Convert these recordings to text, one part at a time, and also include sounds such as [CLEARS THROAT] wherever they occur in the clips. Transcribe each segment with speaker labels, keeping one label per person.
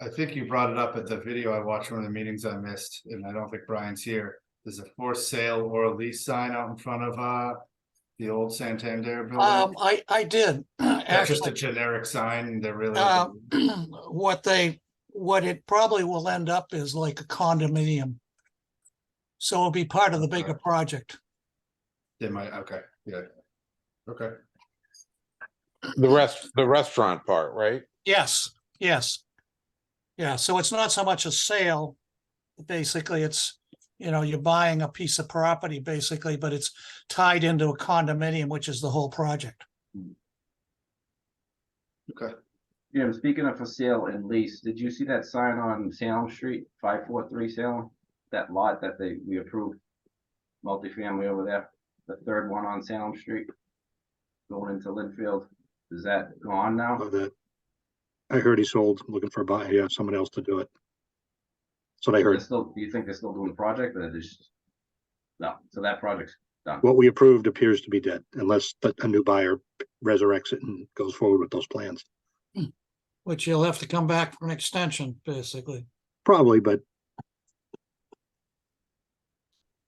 Speaker 1: I think you brought it up at the video I watched, one of the meetings I missed, and I don't think Brian's here. There's a for sale or a lease sign out in front of, uh, the old Santander
Speaker 2: Um,
Speaker 1: building.
Speaker 2: I, I did. [CLEARS THROAT]
Speaker 1: That's just a
Speaker 2: Actually,
Speaker 1: generic sign, they're really,
Speaker 2: um, [CLEARS THROAT] what they, what it probably will end up is like a condominium. So it'll be part of the bigger project.
Speaker 1: they might, okay, yeah. Okay,
Speaker 3: The rest, the restaurant part, right?
Speaker 2: Yes, yes. Yeah, so it's not so much a sale. Basically, it's, you know, you're buying a piece of property basically, but it's tied into a condominium, which is the whole project.
Speaker 1: okay.
Speaker 4: Jim, speaking of for sale and lease, did you see that sign on Salem Street, five four three Salem? That lot that they, we approved, multifamily over there, the third one on Salem Street. Going into Linfield, is that gone now?
Speaker 5: of that. I heard he sold, looking for a buy, yeah, someone else to do it. That's what I
Speaker 4: They're
Speaker 5: heard.
Speaker 4: still, do you think they're still doing the project or they just? No, so that project's done.
Speaker 5: What we approved appears to be dead unless the- a new buyer resurrects it and goes forward with those plans.
Speaker 2: Which you'll have to come back for an extension, basically.
Speaker 5: Probably, but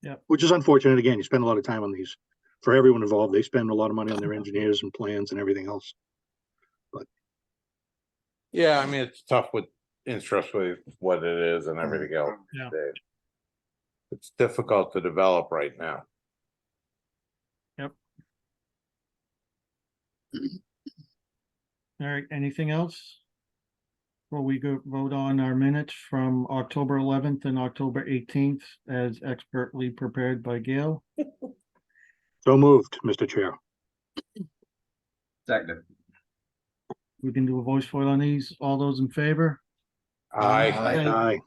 Speaker 2: Yep.
Speaker 5: Which is unfortunate. Again, you spend a lot of time on these. For everyone involved, they spend a lot of money on their engineers and plans and everything else.
Speaker 3: Yeah, I mean, it's tough with interest with what it is and everything else.
Speaker 2: Yeah.
Speaker 3: Dave. It's difficult to develop right now.
Speaker 6: All right, anything else? Well, we go vote on our minutes from October eleventh and October eighteenth as expertly prepared by Gail.
Speaker 5: So moved, Mr. Chair.
Speaker 4: Second,
Speaker 6: We can do a voice vote on these. All those in favor?
Speaker 3: I,
Speaker 1: Aye.
Speaker 5: Aye.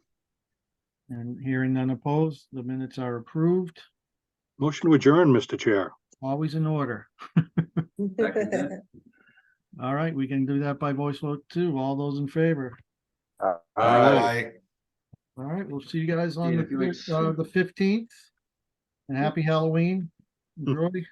Speaker 6: And hearing none opposed, the minutes are approved,
Speaker 5: Motion to adjourn, Mr. Chair.
Speaker 6: always in order.
Speaker 4: second,
Speaker 6: All right, we can do that by voice vote too. All those in favor?
Speaker 3: I,
Speaker 6: All right, we'll see you guys on
Speaker 4: Yeah,
Speaker 6: the
Speaker 4: if you like-
Speaker 6: fif- uh, the fifteenth. And happy Halloween. Enjoy.